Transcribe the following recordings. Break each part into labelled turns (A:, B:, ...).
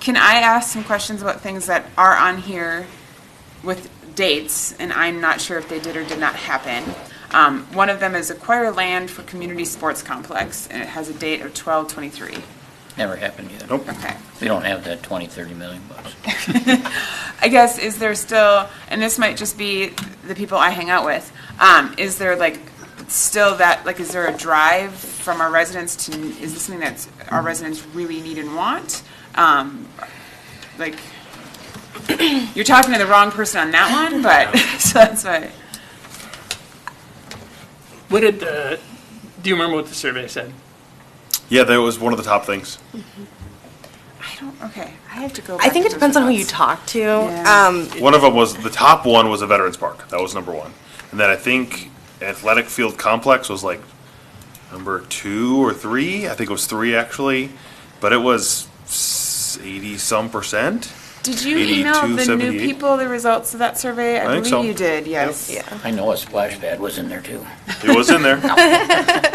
A: Can I ask some questions about things that are on here with dates, and I'm not sure if they did or did not happen? Um, One of them is acquire land for community sports complex, and it has a date of 12/23.
B: Never happened either.
C: Nope.
A: Okay.
B: We don't have that 20, 30 million bucks.
A: I guess, is there still, and this might just be the people I hang out with, um, is there like still that, like, is there a drive from our residents to, is this something that our residents really need and want? Um, like, you're talking to the wrong person on that one, but, so that's why,
D: What did the, do you remember what the survey said?
C: Yeah, that was one of the top things.
A: I don't, okay, I have to go back.
E: I think
A: to those
E: it depends on who you
A: results.
E: talk to.
A: Yeah.
E: Um,
C: One of them was, the top one was a Veterans Park. That was number one. And then I think Athletic Field Complex was like number two or three. I think it was three actually, but it was eighty some percent.
A: Did you email
C: 82,
A: the new
C: 78?
A: people the results of that survey?
C: I think so.
A: believe you did, yes.
E: yeah.
B: I know a splash pad was in there too.
C: It was in there.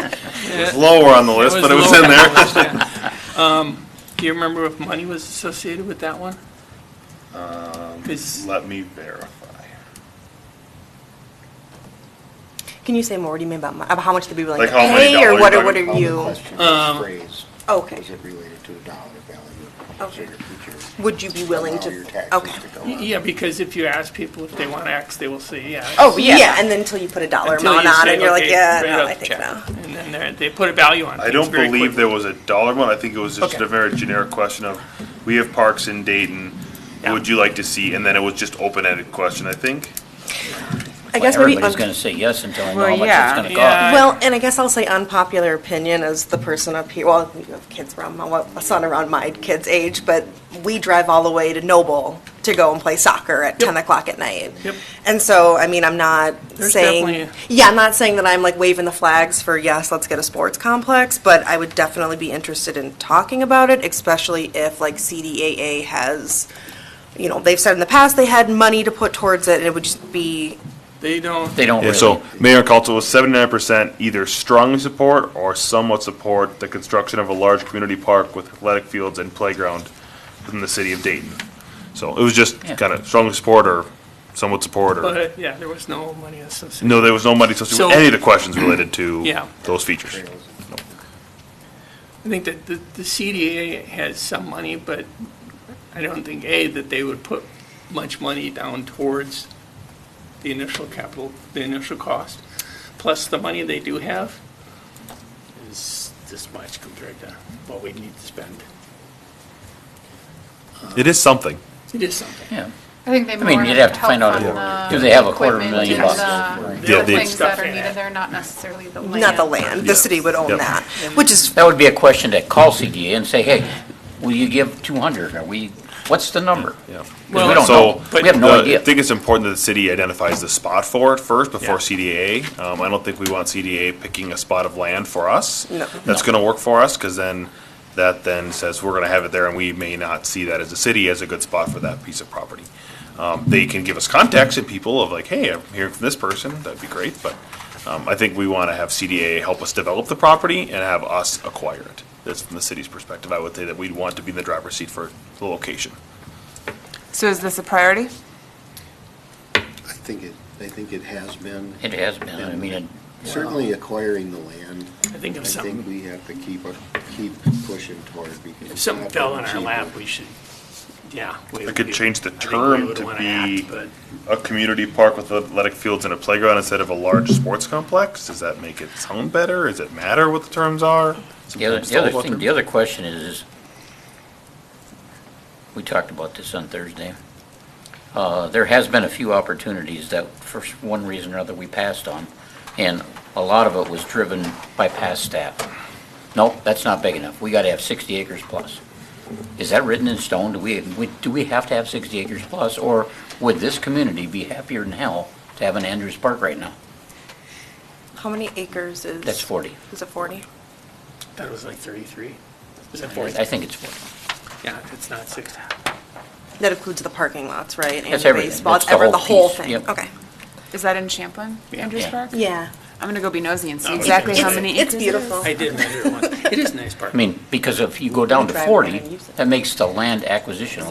C: It was lower on the list, but it was in there.
D: there. Um, Do you remember if money was associated with that one?
C: Um,
D: 'Cause
C: Let me verify.
E: Can you say more? What do you mean about, mo- about how much they'd be willing
C: Like
E: to
C: how many
E: pay, or
C: dollars
E: what? Or
C: you're
E: what
C: talking
E: are you?
D: Um,
E: Okay.
F: Is it related to a dollar value?
E: Okay.
F: So your future-
E: Would you be willing
F: Allow your
E: to?
F: taxes
E: Okay.
F: to go up.
D: yeah, because if you ask people if they want X, they will say yeah.
E: Oh yeah. yeah. And then until you put a dollar
D: Until
E: amount
D: you
E: on,
D: say,
E: and you're like,
D: okay,
E: yeah,
D: write
E: no,
D: out
E: I
D: the
E: think
D: check.
E: no.
D: And then they're- they put a value on
C: I
D: things
C: don't
D: very
C: believe
D: quickly.
C: there was a dollar amount. I think it was just
D: Okay.
C: a very generic question of, we have parks in Dayton.
D: Yeah.
C: What would you like to see? And then it was just open-ended question, I think.
E: I guess um, maybe.
B: Everybody's
E: un-
B: going to say yes until I know
A: Well,
B: how much
A: yeah.
B: it's going to
D: Yeah.
B: cost.
E: Well, and I guess I'll say unpopular opinion as the person up here, well, you have kids around my, well, a son around my kid's age, but we drive all the way to Noble to go and play soccer at ten o'clock at night.
D: Yep.
E: And so, I mean, I'm not
D: There's
E: saying,
D: definitely-
E: yeah, I'm not saying that I'm like waving the flags for, yes, let's get a sports complex, but I would definitely be interested in talking about it, especially if like CDAA has, you know, they've said in the past they had money to put towards it, and it would just be,
D: They don't.
B: They don't
C: Yeah,
B: really.
C: so Mayor Coulter was seventy-nine percent either strongly support or somewhat support the construction of a large community park with athletic fields and playground within the city of Dayton. So it was just
B: Yeah.
C: kind of strongly support or somewhat support or,
D: But yeah, there was no money associated.
C: no, there was no money associated with
D: So-
C: any of the questions related to
D: Yeah.
C: those features.
D: I think that the, the CDA has some money, but I don't think, A, that they would put much money down towards the initial capital, the initial cost. Plus, the money they do have is this much compared to what we need to spend.
C: It is something.
D: It is something.
B: Yeah.
G: I think they
B: I mean,
G: more
B: you'd have to
G: help
B: find out
G: on
B: if-
G: the
B: if they have a quarter
G: equipment
B: million
G: and
B: bucks.
G: the-
C: Yeah,
G: The
C: they-
G: things that
D: Stuff
G: are
D: in it.
G: needed, they're not necessarily the land.
E: not the land, the
C: Yeah.
E: city would own
C: Yep.
E: that, which is
B: That would be a question to call CDA and say, hey, will you give 200? Are we, what's the number?
C: Yeah.
B: 'Cause we don't
C: So,
B: know. We have no
C: the-
B: idea.
C: I think it's important that the city identifies the spot for it first before
D: Yeah.
C: CDA. Um, I don't think we want CDA picking a spot of land for us.
E: No.
C: That's gonna work for us, cause then, that then says we're gonna have it there and we may not see that as a city as a good spot for that piece of property. Um, they can give us contacts and people of like, hey, I'm hearing from this person, that'd be great, but, um, I think we wanna have CDA help us develop the property and have us acquire it. That's from the city's perspective. I would say that we'd want to be in the driver's seat for the location.
A: So is this a priority?
F: I think it, I think it has been.
B: It has been, I mean, it-
F: Certainly acquiring the land,
D: I think
F: I
D: if
F: think
D: something,
F: we have to keep, a- keep pushing toward because.
D: if
F: it's
D: something
F: not
D: fell in our
F: cheaper.
D: lap, we should, yeah. we-
C: I could
D: we-
C: change the
D: I think we
C: term
D: would
C: to
D: wanna
C: be-
D: act, But
C: a community park with athletic fields and a playground instead of a large sports complex? Does that make it sound better? Does it matter what the terms are?
B: The other, the other thing, the other question is, is, we talked about this on Thursday. Uh, there has been a few opportunities that for one reason or other we passed on, and a lot of it was driven by past staff. Nope, that's not big enough. We gotta have sixty acres plus. Is that written in stone? Do we, we- do we have to have sixty acres plus, or would this community be happier than hell to have an Andrews Park right now?
E: How many acres is?
B: That's forty.
E: Is it 40?
D: that was like 33. Is that
B: I
D: 40?
B: think it's forty.
D: Yeah, it's not 60.
E: That includes the parking lots, right? And
B: That's
E: the
B: everything.
E: baseball,
B: That's the
E: ever-
B: whole
E: The whole
B: piece.
E: thing?
B: Yep.
E: Okay.
A: Is that in Champlin, Andrews
B: Yeah.
A: Park?
E: Yeah.
A: I'm gonna go be nosy and see
D: No,
A: exactly
D: it's-
A: how
D: it's-
A: many acres
E: It's
A: it is.
E: beautiful.
D: I did measure it once.
H: It is nice park.
B: I mean, because if you go down to
D: Drive around
B: 40,
D: and use it.
B: that makes the land acquisition